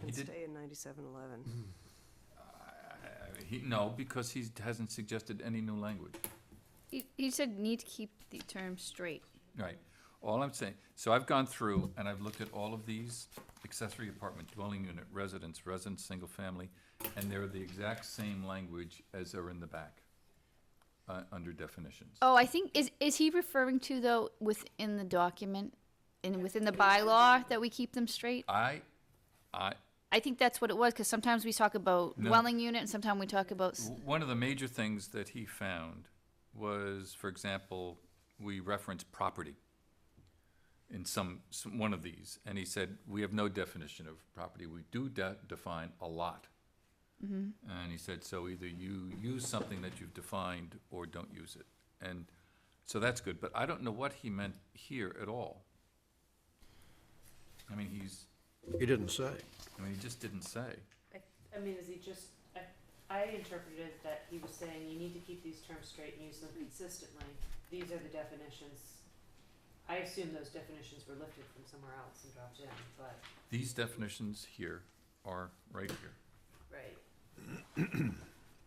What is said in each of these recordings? He Let's did- Mm, stay in ninety-seven eleven. Uh, He, no, because he hasn't suggested any new language. He, he said need to keep the term straight. Right. All I'm saying, so I've gone through and I've looked at all of these accessory apartment dwelling unit residence, residence, single family, and they're the exact same language as are in the back, uh, under definitions. Oh, I think, is, is he referring to though within the document and within the bylaw that we keep them straight? I, I, I think that's what it was, because sometimes we talk about No. dwelling unit and sometimes we talk about, s- w- one of the major things that he found was, for example, we reference property in some, some, one of these, and he said, we have no definition of property, we do de- define a lot. And he said, so either you use something that you've defined or don't use it, and, so that's good, but I don't know what he meant here at all. I mean, he's, He didn't say. I mean, he just didn't say, I, I mean, is he just, I, I interpreted that he was saying you need to keep these terms straight and use them consistently. These are the definitions. I assume those definitions were lifted from somewhere else and dropped in, but, these definitions here are right here. right,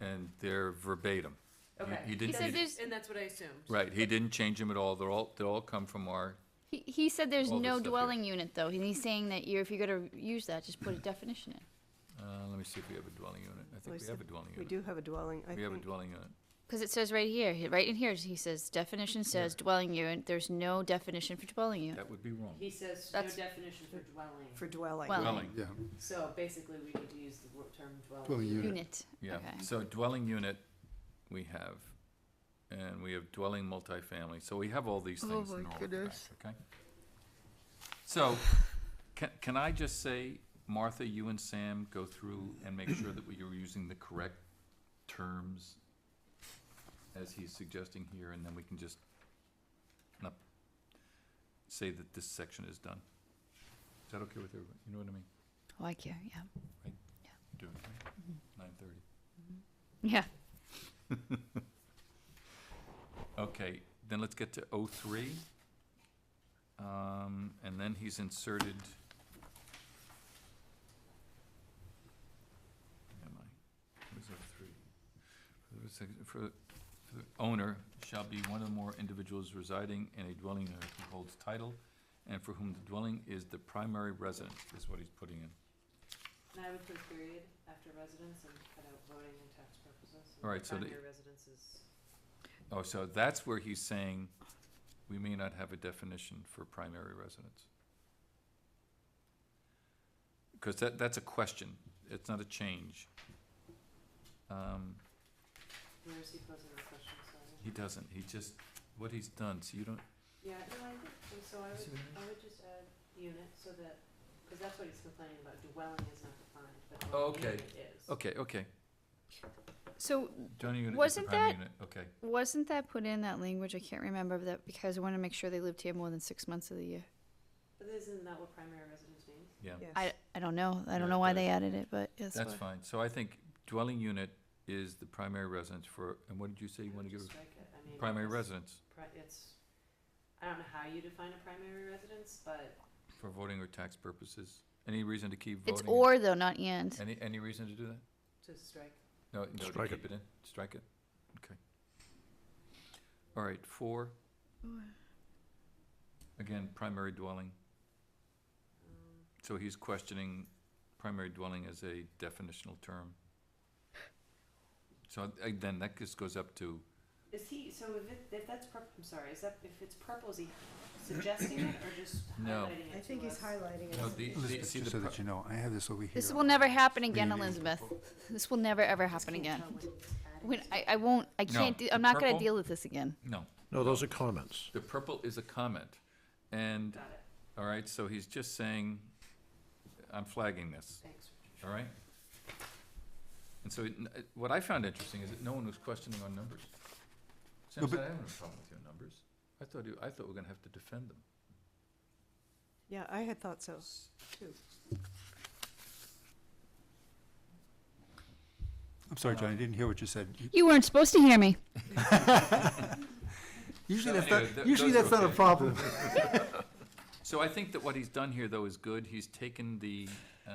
and they're verbatim. He- okay. He didn't, said he That's- di- there's- And that's what I assumed. right, he didn't change them at all, they're all, they all come from our, he, he said there's All this no stuff here. dwelling unit though, and he's saying that you're, if you're gonna use that, just put a definition in. uh, let me see if we have a dwelling unit, Well, I think he we have said a dwelling We unit. do have a dwelling, I We have a think. dwelling unit, Because it says right here, he- right in here, he says definition says dwelling unit, there's no definition for dwelling unit. that would be wrong. He says no That's- definition for dwelling, For dwelling. Well- Dwelling, Yeah, so basically we need to use the wo- term well, dwelling. you, Unit, yeah, okay. so dwelling unit we have, and we have dwelling multifamily, so we have all these Oh things my in all of the back, goodness. okay? So, can, can I just say, Martha, you and Sam go through and make sure that we are using the correct terms as he's suggesting here, and then we can just not say that this section is done. Is that okay with everybody? You know what I mean? Oh, I care, yeah, Do it, right? Mm-hmm. Nine thirty. yeah. Okay, then let's get to O three. Um, and then he's inserted. Where Am I? Where's O three? For the sec- For, for the owner shall be one or more individuals residing in a dwelling unit who holds title and for whom the dwelling is the primary residence, is what he's putting in. And I would put period after residence and cut out voting and tax purposes. and All right, so the- Primary residences. Oh, so that's where he's saying we may not have a definition for primary residence. Because that, that's a question, it's not a change. Um, where is he posing the question, sorry? he doesn't, he just, what he's done, so you don't, Yeah, no, I think, so I You see what would, I mean? I would just add unit so that, because that's what he's complaining about, dwelling is not defined, but Oh, dwelling okay. unit is. okay, okay, So dwelling unit is the Wasn't primary that- unit, okay. Wasn't that put in that language? I can't remember that because I want to make sure they lived here more than six months of the year. But isn't that what primary residence means? Yes. I, I don't know. I Yeah, don't know why that- they added it, but it's That's what- fine, so I think dwelling unit is the primary residence for, and what did you say you I wanna would give? just strike it. I mean, Primary it's residence pri- It's, I don't know how you define a primary residence, but for voting or tax purposes, any reason to keep voting? It's or though, not and. Any, any reason to do that? to strike, No, no, to Strike keep it in, strike it, okay. All right, four. Again, primary dwelling, um, so he's questioning primary dwelling as a definitional term. So uh, then that just goes up to, is he, so if it, if that's purple, I'm sorry, is that, if it's purple, is he suggesting it or just No. highlighting it I think to he's us? highlighting it. no, oh, the, the, Elizabeth, see the, just so pri- that you know, I have this over here. This will never happen again, Really? Elizabeth. This will never ever happen Can't again. tell when he's adding When to I, I won't. I No, can't. do, the I'm not going purple- to deal with this again. no, No, those are comments. the purple is a comment, and, it. Got it, all right, so he's just saying, I'm flagging this. thanks. All right? And so it- it- what I found interesting is that no one was questioning our numbers. Sam No, said, but- I don't have a problem with your numbers. I thought you, I thought we were gonna have to defend them. Yeah, I had thought so, too. I'm sorry, John, I didn't hear what you said. You- You weren't supposed to hear me. Usually that's anyway, not, th- usually those are that's not a okay. problem. So I think that what he's done here, though, is good. He's taken the, uh,